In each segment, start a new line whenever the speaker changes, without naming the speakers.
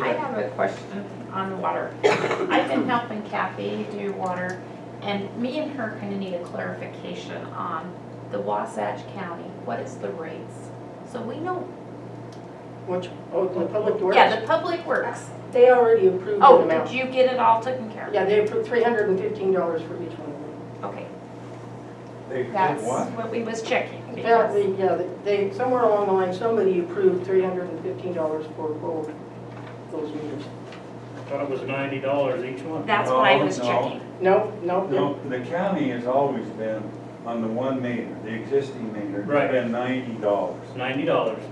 I have a question on water. I've been helping Kathy do water, and me and her kind of need a clarification on the Wasatch County, what is the rates? So we know,
Which, oh, the public works?
yeah, the public works.
They already approved an
Oh, did
amount.
you get it all taken care
Yeah, they approved three hundred and fifteen dollars for each one of them.
of? Okay,
They did
that's
what?
what we was checking. because-
Apparently, yeah, they, somewhere along the line, somebody approved three hundred and fifteen dollars for both those meters.
I Thought it was ninety dollars each one.
That's what I
Oh, No,
was
no.
checking.
No, no, no.
No, the county has always been on the one meter, the existing meter,
Right.
it's been ninety dollars.
It's ninety dollars.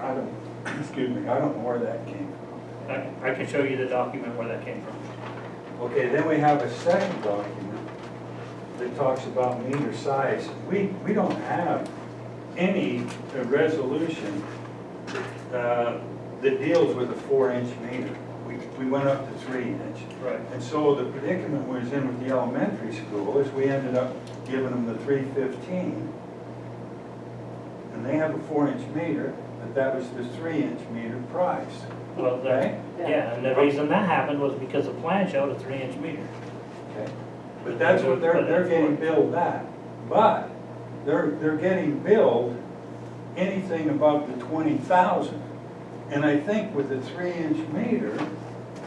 I don't, excuse me, I don't know where that came
I, I can show you the document where that came from.
from. Okay, then we have a second document that talks about meter size. We, we don't have any uh, resolution uh, that deals with a four-inch meter. We, we went up to three inch.
Right.
And so the predicament we was in with the elementary school is we ended up giving them the three fifteen. And they have a four inch meter, but that was the three inch meter price,
Well,
okay?
that, yeah, and the reason that happened was because the plan showed a three inch meter.
Okay. But that's what they're, they're getting billed that. But they're, they're getting billed anything above the twenty thousand. And I think with the three inch meter,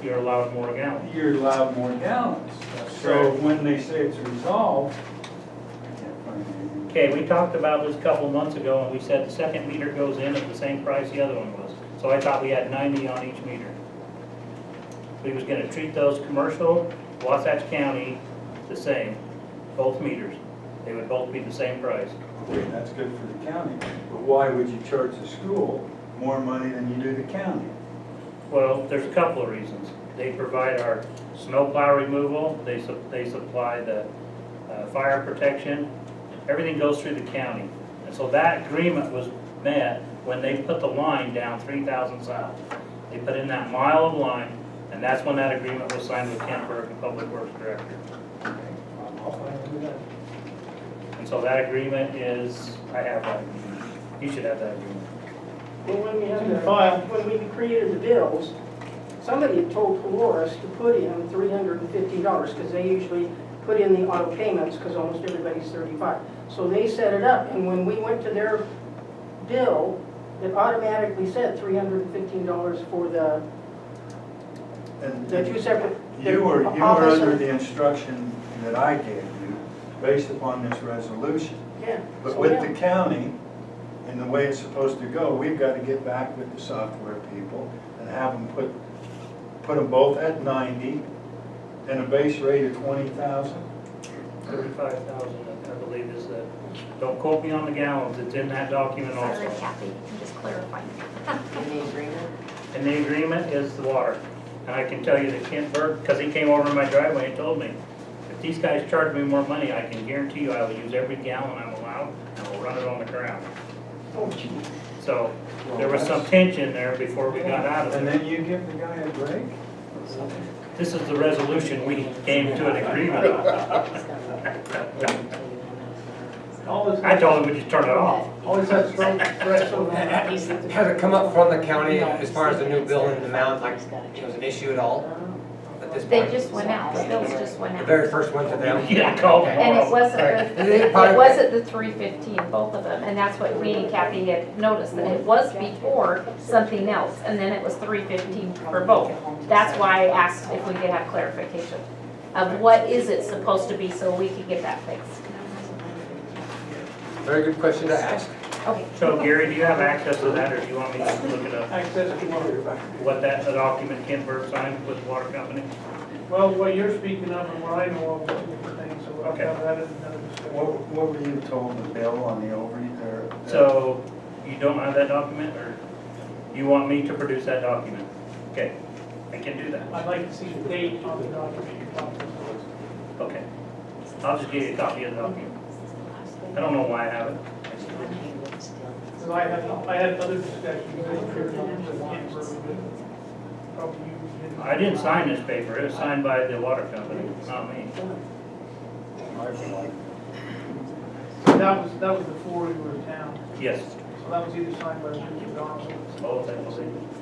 You're allowed more gallons.
you're allowed more gallons.
That's
So
correct.
when they say it's resolved, I can't find anything.
Okay, we talked about this a couple months ago and we said the second meter goes in at the same price the other one was. So I thought we had ninety on each meter. We was gonna treat those commercial, Wasatch County, the same, both meters. They would both be the same price.
Okay, that's good for the county, but why would you charge the school more money than you do the county?
Well, there's a couple of reasons. They provide our snowplow removal, they, su- they supply the uh, fire protection, everything goes through the county. And so that agreement was met when they put the line down 3,000 south. They put in that mile of line, and that's when that agreement was signed with Kent Burke, the Public Works Director. And so that agreement is, I have that, you should have that agreement.
Well, when we had
In the
the,
file.
when we created the bills, somebody had told Polaris to put in three hundred and fifty dollars, because they usually put in the auto payments, because almost everybody's thirty-five. So they set it up, and when we went to their bill, it automatically said three hundred and fifteen dollars for the,
And
the two separate.
you were, you were
office
under
and-
the instruction that I gave you, based upon this resolution.
Yeah.
But
so
with
yeah.
the county, and the way it's supposed to go, we've got to get back with the software people and have them put, put them both at ninety and a base rate of twenty thousand.
Thirty-five thousand, I believe is the, don't quote me on the gallons, it's in that document
Sorry,
also.
Kathy, I'm just clarifying.
And the agreement is the water. And I can tell you that Kent Burke, because he came over in my driveway and told me, if these guys charge me more money, I can guarantee you I will use every gallon I'm allowed and I'll run it on the ground.
Oh, gee.
So there was some tension there before we got out of
And
it.
then you give the guy a break?
This is the resolution we came to an agreement on.
All this,
I told him we just turn it off.
all this has
Has it come up from the county as far as the new bill and the amount, like, it was an issue at all at this
They
point?
just went out, bills just went
The
out.
very first one to them?
Yeah, I called
And it
tomorrow.
wasn't,
Is it
the-
part
it
of-
wasn't the three fifteen, both of them, and that's what me and Kathy had noticed, that it was before something else, and then it was three fifteen for both. That's why I asked if we could have clarification of what is it supposed to be, so we could get that fixed.
Very good question to ask.
Okay,
So Gary, do you have access to that or do you want me to look it up?
Access to water.
what that the document Ken Burke signed with the water company?
Well, what you're speaking of and what I know of are two different things, so I'll have that in another discussion.
What, what were you told the bill on the overage there?
So you don't have that document, or you want me to produce that document? Okay, I can do that.
I'd like to see the date on the document you're talking about.
Okay. I'll just give you a copy of the document. I don't know why I have it.
Because I had, I had other discussions, I was sure numbers that can't work with it. Probably you didn't.
I didn't sign this paper, it was signed by the water company, not me.
That was, that was before we were in town,
Yes,
so that was either signed by Jim Donald.
both, I believe.